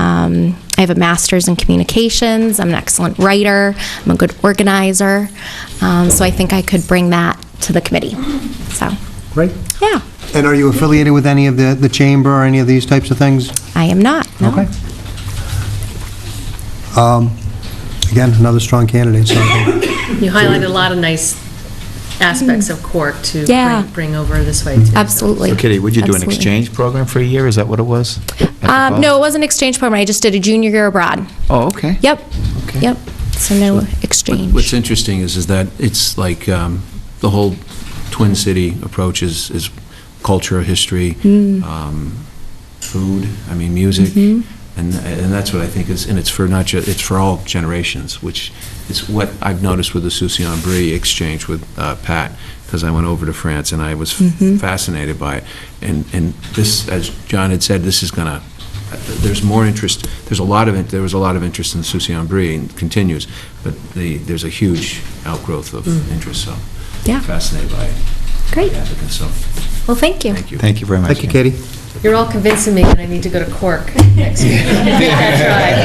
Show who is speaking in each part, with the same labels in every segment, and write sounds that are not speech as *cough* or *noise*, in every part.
Speaker 1: Um, I have a master's in communications. I'm an excellent writer. I'm a good organizer. Um, so I think I could bring that to the committee. So,
Speaker 2: Great.
Speaker 1: yeah,
Speaker 2: And are you affiliated with any of the, the chamber or any of these types of things?
Speaker 1: I am not. No.
Speaker 2: Okay. Um, Again, another strong candidate, so
Speaker 3: You highlighted a lot of nice aspects of Cork to
Speaker 1: Yeah.
Speaker 3: bring- bring over this way, too.
Speaker 1: Absolutely.
Speaker 4: So Kitty, would you do an
Speaker 1: Absolutely.
Speaker 4: exchange program for a year? Is that what it was?
Speaker 1: Um, no, it was an exchange program. I just did a junior year abroad.
Speaker 4: Oh, okay.
Speaker 1: Yep.
Speaker 4: Okay.
Speaker 1: Yep. So no exchange.
Speaker 5: What's interesting is, is that it's like, um, the whole Twin City approach is, is culture, history, um, food, I mean, music,
Speaker 1: Mm-hmm.
Speaker 5: and, and that's what I think is, and it's for not ju, it's for all generations, which is what I've noticed with the Soucy Brie exchange with uh, Pat, because I went over to France and I was
Speaker 1: Mm-hmm.
Speaker 5: fascinated by it. And, and this, as John had said, this is gonna, there's more interest, there's a lot of, it- there was a lot of interest in Soucy Brie and continues, but the, there's a huge outgrowth of interest, so.
Speaker 1: Mm. Yeah.
Speaker 5: Fascinated by it.
Speaker 1: Great.
Speaker 5: the applicants, so,
Speaker 1: Well, thank you.
Speaker 5: thank you.
Speaker 4: Thank you very much.
Speaker 2: Thank you, Katie.
Speaker 3: You're all convincing me that I need to go to Cork *laughs* next year.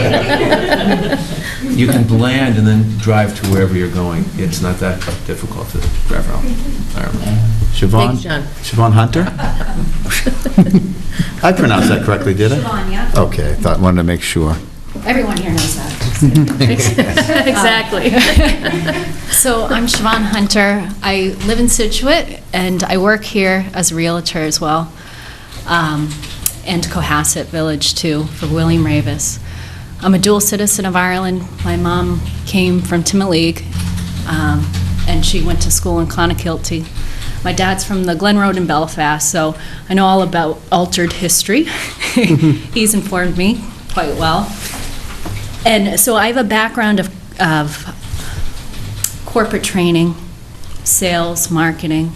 Speaker 3: That's right.
Speaker 5: You can land and then drive to wherever you're going. It's not that difficult to drive around. Ireland.
Speaker 4: Siobhan?
Speaker 3: Thanks, John.
Speaker 4: Siobhan Hunter? *laughs* I pronounced that correctly, did I?
Speaker 6: Siobhan, yeah.
Speaker 4: Okay, I thought, wanted to make sure.
Speaker 6: Everyone here knows that.
Speaker 3: *laughs* Exactly.
Speaker 6: *laughs* So I'm Siobhan Hunter. I live in Situate, and I work here as a Realtor as well, um, and Cohasset Village, too, for William Ravis. I'm a dual citizen of Ireland. My mom came from Timoleague, um, and she went to school in Clonakilty. My dad's from the Glen Road in Belfast, so I know all about altered history. *laughs* He's informed me quite well. And so I have a background of, of corporate training, sales, marketing.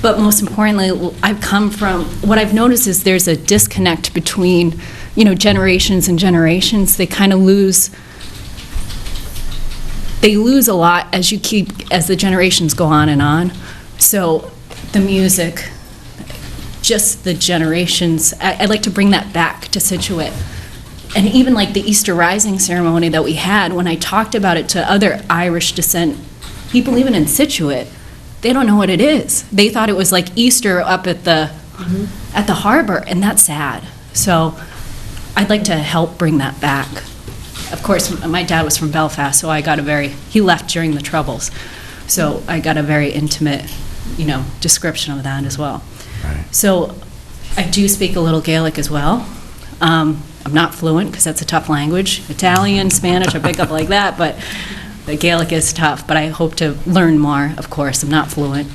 Speaker 6: But most importantly, I've come from, what I've noticed is there's a disconnect between, you know, generations and generations. They kind of lose, they lose a lot as you keep, as the generations go on and on. So the music, just the generations, I, I'd like to bring that back to Situate. And even like the Easter Rising ceremony that we had, when I talked about it to other Irish descent people, even in Situate, they don't know what it is. They thought it was like Easter up at the at the harbor, and that's sad. So I'd like to help bring that back. Of course, m- my dad was from Belfast, so I got a very he left during the troubles, so I got a very intimate, you know, description of that as well. So I do speak a little Gaelic as well. Um, I'm not fluent because that's a tough language. Italian, Spanish, I pick up like that, but the Gaelic is tough. But I hope to learn more, of course. I'm not fluent.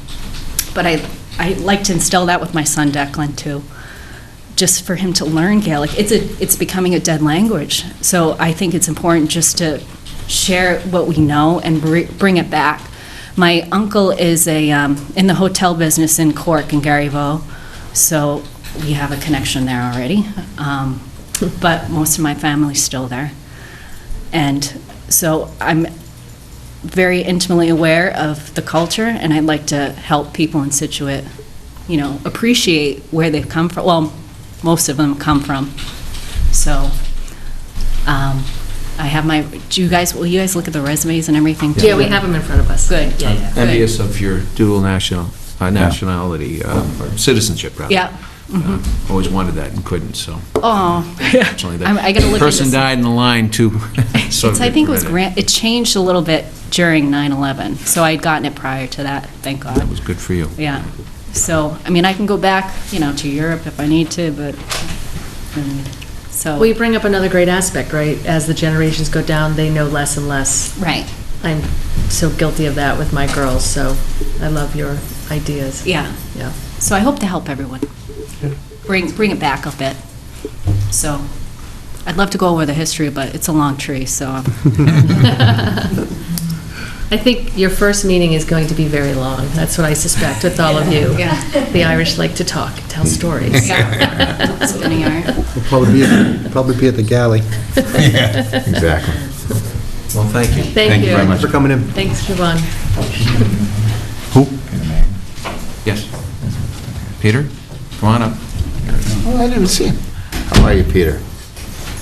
Speaker 6: But I, I like to instill that with my son Declan too, just for him to learn Gaelic. It's, a, it's becoming a dead language. So I think it's important just to share what we know and br- bring it back. My uncle is a, um, in the hotel business in Cork and Garyvaux, so we have a connection there already. Um, But most of my family's still there. And so I'm very intimately aware of the culture, and I'd like to help people in Situate, you know, appreciate where they've come from, well, most of them come from. So um, I have my, do you guys, will you guys look at the resumes and everything? too?
Speaker 3: Yeah, we have them in front of us.
Speaker 6: Good, yeah, yeah. good.
Speaker 5: Envious of your dual national, uh, nationality, um, or citizenship, rather.
Speaker 6: Yeah. mm-hmm.
Speaker 5: Uh, Always wanted that and couldn't, so.
Speaker 6: Oh.
Speaker 5: Unfortunately, that
Speaker 6: I'm- I gotta look into
Speaker 5: Person
Speaker 6: this.
Speaker 5: died in the line, too.
Speaker 6: *laughs*
Speaker 5: So
Speaker 6: It's, I think it was,
Speaker 5: regretted.
Speaker 6: gran- it changed a little bit during 9/11, so I'd gotten it prior to that, thank God.
Speaker 5: That was good for you.
Speaker 6: Yeah. So, I mean, I can go back, you know, to Europe if I need to, but, um, so.
Speaker 3: Well, you bring up another great aspect, right? As the generations go down, they know less and less.
Speaker 6: Right,
Speaker 3: I'm so guilty of that with my girls, so I love your ideas.
Speaker 6: yeah.
Speaker 3: Yeah.
Speaker 6: So I hope to help everyone. Bring, bring it back a bit. So, I'd love to go over the history, but it's a long tree, so.
Speaker 3: *laughs* I think your first meeting is going to be very long. That's what I suspect with all of you.
Speaker 6: Yeah.
Speaker 3: The Irish like to talk, tell stories.
Speaker 6: Yeah. *laughs* That's what they are.
Speaker 4: *laughs*
Speaker 2: We'll Probably be, at- probably be at the galley.
Speaker 4: Exactly.
Speaker 5: Well, thank you.
Speaker 3: Thank
Speaker 4: very
Speaker 3: you.
Speaker 4: much.
Speaker 2: Thanks for coming in.
Speaker 3: Thanks, Siobhan.
Speaker 5: Yes. Peter, come on up.
Speaker 4: Oh, I didn't see him. How are you, Peter?